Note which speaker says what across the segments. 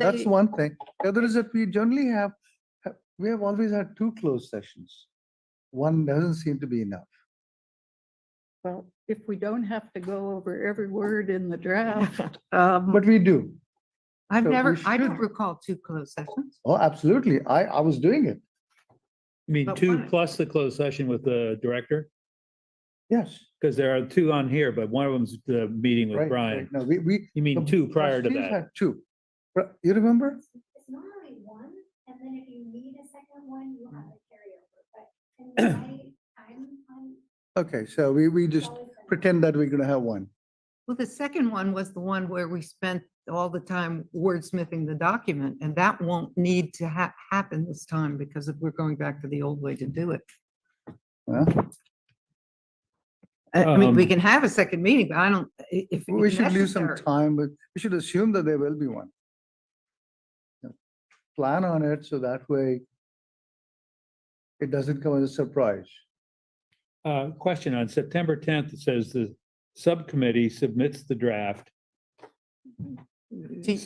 Speaker 1: That's
Speaker 2: They-
Speaker 1: one thing. The other is that we generally have, ha- we have always had two closed sessions. One doesn't seem to be enough.
Speaker 2: Well, if we don't have to go over every word in the draft,
Speaker 3: Hmm.
Speaker 2: um,
Speaker 1: But we do.
Speaker 3: I've
Speaker 1: So we
Speaker 3: never, I don't
Speaker 1: should-
Speaker 3: recall two closed sessions.
Speaker 1: Oh, absolutely. I, I was doing it.
Speaker 4: I mean,
Speaker 3: But
Speaker 4: two
Speaker 3: one-
Speaker 4: plus the closed session with the director,
Speaker 1: Yes.
Speaker 4: because there are two on here, but one of them's the meeting
Speaker 1: right,
Speaker 4: with
Speaker 1: right.
Speaker 4: Brian.
Speaker 1: No, we, we.
Speaker 4: You mean
Speaker 1: the
Speaker 4: two prior to
Speaker 1: trustees
Speaker 4: that?
Speaker 1: had Two. But You remember?
Speaker 5: It's it's normally one, and then if you need a second one, you have a carryover, but in my time, I'm
Speaker 1: Okay, so we, we just
Speaker 5: always. been-
Speaker 1: pretend that we're gonna have one.
Speaker 3: Well, the second one was the one where we spent all the time wordsmithing the document, and that won't need to ha- happen this time because if we're going back to the old way to do it.
Speaker 1: huh?
Speaker 3: I I mean, we
Speaker 4: Um,
Speaker 3: can have a second meeting, but I don't, i- if.
Speaker 1: We
Speaker 3: if
Speaker 1: should leave some
Speaker 3: necessary.
Speaker 1: time, but we should assume that there will be one. Yeah. Plan on it, so that way it doesn't come as a surprise.
Speaker 4: Uh, question on September tenth, it says the subcommittee submits the draft
Speaker 3: To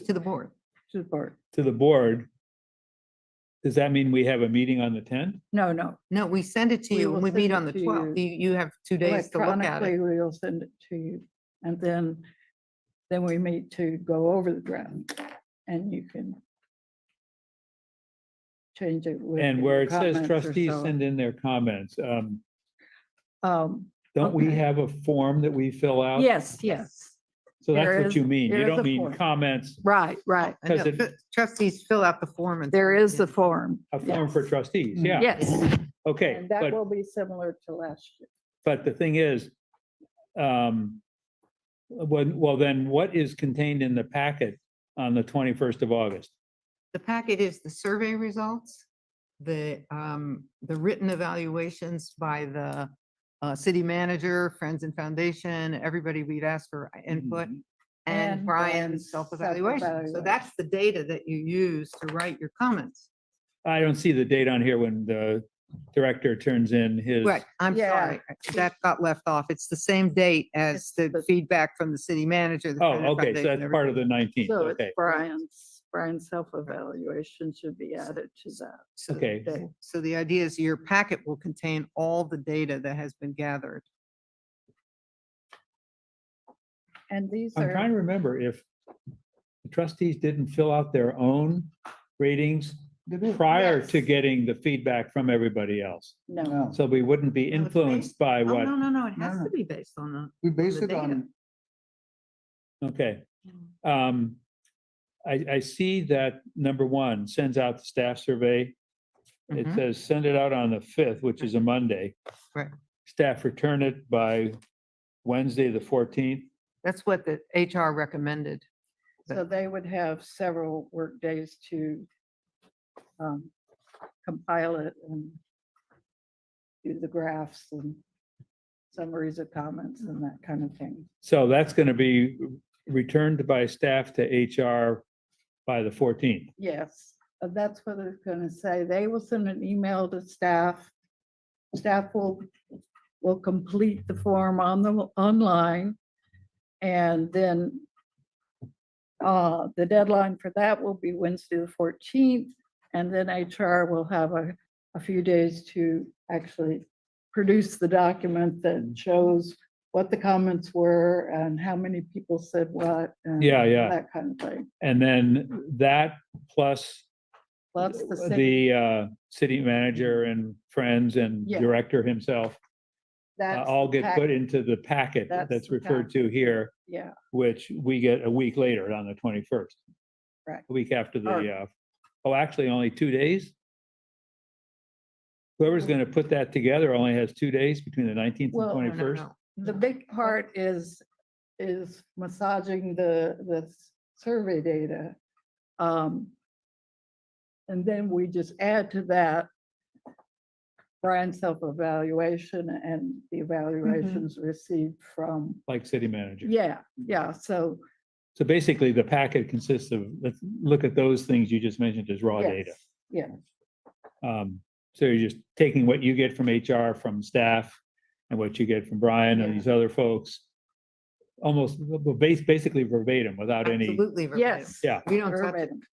Speaker 3: to the board.
Speaker 2: to the board.
Speaker 4: to the board. Does that mean we have a meeting on the tenth?
Speaker 2: No, no.
Speaker 3: No, we send it to
Speaker 2: We
Speaker 3: you
Speaker 2: will
Speaker 3: and we
Speaker 2: send
Speaker 3: meet
Speaker 2: it
Speaker 3: on the
Speaker 2: to you
Speaker 3: twelfth. You, you have two days to look at
Speaker 2: Electronically,
Speaker 3: it.
Speaker 2: we'll send it to you. And then, then we meet to go over the draft and you can change it with.
Speaker 4: And where
Speaker 2: your
Speaker 4: it says
Speaker 2: comments or
Speaker 4: trustees
Speaker 2: so.
Speaker 4: send in their comments, um,
Speaker 2: Um,
Speaker 4: don't we
Speaker 2: Okay.
Speaker 4: have a form that we fill out?
Speaker 2: yes, yes,
Speaker 4: So
Speaker 2: there
Speaker 4: that's
Speaker 2: is-
Speaker 4: what you mean.
Speaker 2: there
Speaker 4: You
Speaker 2: is a
Speaker 4: don't mean
Speaker 2: form.
Speaker 4: comments,
Speaker 2: right, right.
Speaker 3: I know,
Speaker 4: 'cause it-
Speaker 3: but Trustees fill out the form and.
Speaker 2: There is
Speaker 3: the
Speaker 2: the form.
Speaker 4: a form
Speaker 2: yes.
Speaker 4: for trustees,
Speaker 2: Mm-hmm.
Speaker 1: Mm.
Speaker 4: yeah,
Speaker 2: Yes,
Speaker 4: okay.
Speaker 2: and
Speaker 4: but-
Speaker 2: that will be similar to last year.
Speaker 4: But the thing is, um, when, well, then what is contained in the packet on the twenty-first of August?
Speaker 3: The packet is the survey results, the, um, the written evaluations by the, uh, city manager, Friends and Foundation, everybody we'd asked for input, Mm-hmm. and
Speaker 2: And
Speaker 3: Brian's
Speaker 2: Brian's
Speaker 3: self-evaluation. So
Speaker 2: self-evaluation.
Speaker 3: that's the data that you use to write your comments.
Speaker 4: I don't see the date on here when the director turns in his.
Speaker 3: Right, I'm
Speaker 2: Yeah.
Speaker 3: sorry, that got left off. It's the same date as
Speaker 2: It's the-
Speaker 3: the feedback from the city manager. the
Speaker 4: Oh,
Speaker 3: Friends and
Speaker 4: okay, so
Speaker 3: Foundation,
Speaker 4: that's part of the nineteenth,
Speaker 2: So it's
Speaker 4: okay,
Speaker 2: Brian's, Brian's self-evaluation should be added to that.
Speaker 3: So-
Speaker 4: okay.
Speaker 2: that-
Speaker 3: So the idea is your packet will contain all the data that has been gathered.
Speaker 2: And these
Speaker 4: I'm trying
Speaker 2: are,
Speaker 4: to remember if the trustees didn't fill out their own ratings prior to
Speaker 2: Yes.
Speaker 4: getting the feedback from everybody else.
Speaker 2: no,
Speaker 1: No,
Speaker 4: So we wouldn't be
Speaker 3: No, it's based-
Speaker 4: influenced by
Speaker 3: Oh,
Speaker 4: what,
Speaker 3: no, no, no, it
Speaker 1: No,
Speaker 3: has
Speaker 1: no.
Speaker 3: to be based on the
Speaker 1: we base
Speaker 3: the
Speaker 1: it
Speaker 3: data.
Speaker 1: on,
Speaker 4: okay.
Speaker 2: Mm.
Speaker 4: Um, I, I see that number one sends out the staff survey. It
Speaker 2: Mm-hmm.
Speaker 3: Mhm.
Speaker 4: says send it out on the fifth, which is a Monday.
Speaker 3: Right.
Speaker 4: Staff return it by Wednesday, the fourteenth.
Speaker 3: That's what the HR recommended.
Speaker 2: so they would have several work days to um, compile it and do the graphs and summaries of comments and that kind of thing.
Speaker 4: So that's going to be returned by staff to HR by the fourteenth.
Speaker 2: Yes, uh, that's what it's gonna say. They will send an email to staff. Staff will, will complete the form on the, online. And then uh, the deadline for that will be Wednesday the fourteenth. And then HR will have a, a few days to actually produce the document that shows what the comments were and how many people said what. and
Speaker 4: Yeah, yeah.
Speaker 2: That kind of thing.
Speaker 4: And then that plus
Speaker 2: Plus the city.
Speaker 4: the uh, city manager and friends and
Speaker 2: Yeah.
Speaker 4: director himself uh,
Speaker 2: that's
Speaker 4: all
Speaker 2: the
Speaker 4: get put
Speaker 2: package.
Speaker 4: into the packet
Speaker 2: That's
Speaker 4: that's
Speaker 2: the
Speaker 4: referred to here.
Speaker 2: Yeah,
Speaker 4: which we get a week later on the twenty-first.
Speaker 2: Right.
Speaker 4: A week after
Speaker 2: Or-
Speaker 4: the, uh, oh, actually only two days. Whoever's going to put that together only has two days between the nineteenth and
Speaker 2: Well, no, no,
Speaker 3: No, no,
Speaker 4: twenty-first.
Speaker 3: no.
Speaker 2: the big part is, is massaging the, the s- survey data. Um And then we just add to that Brian's self-evaluation and the
Speaker 3: Mm-hmm.
Speaker 2: evaluations received from,
Speaker 4: Like city manager.
Speaker 2: yeah, yeah, so.
Speaker 4: So basically, the packet consists of, let's look at those things you just mentioned as raw data.
Speaker 2: yes, Yeah,
Speaker 4: Um, so you're just taking what you get from HR, from staff, and what you get from Brian and
Speaker 2: Yeah.
Speaker 4: these other folks. Almost, well, bas- basically verbatim, without any,
Speaker 3: Absolutely. verbatim.
Speaker 2: yes.
Speaker 4: Yeah.
Speaker 3: We don't touch it.
Speaker 2: verbatim.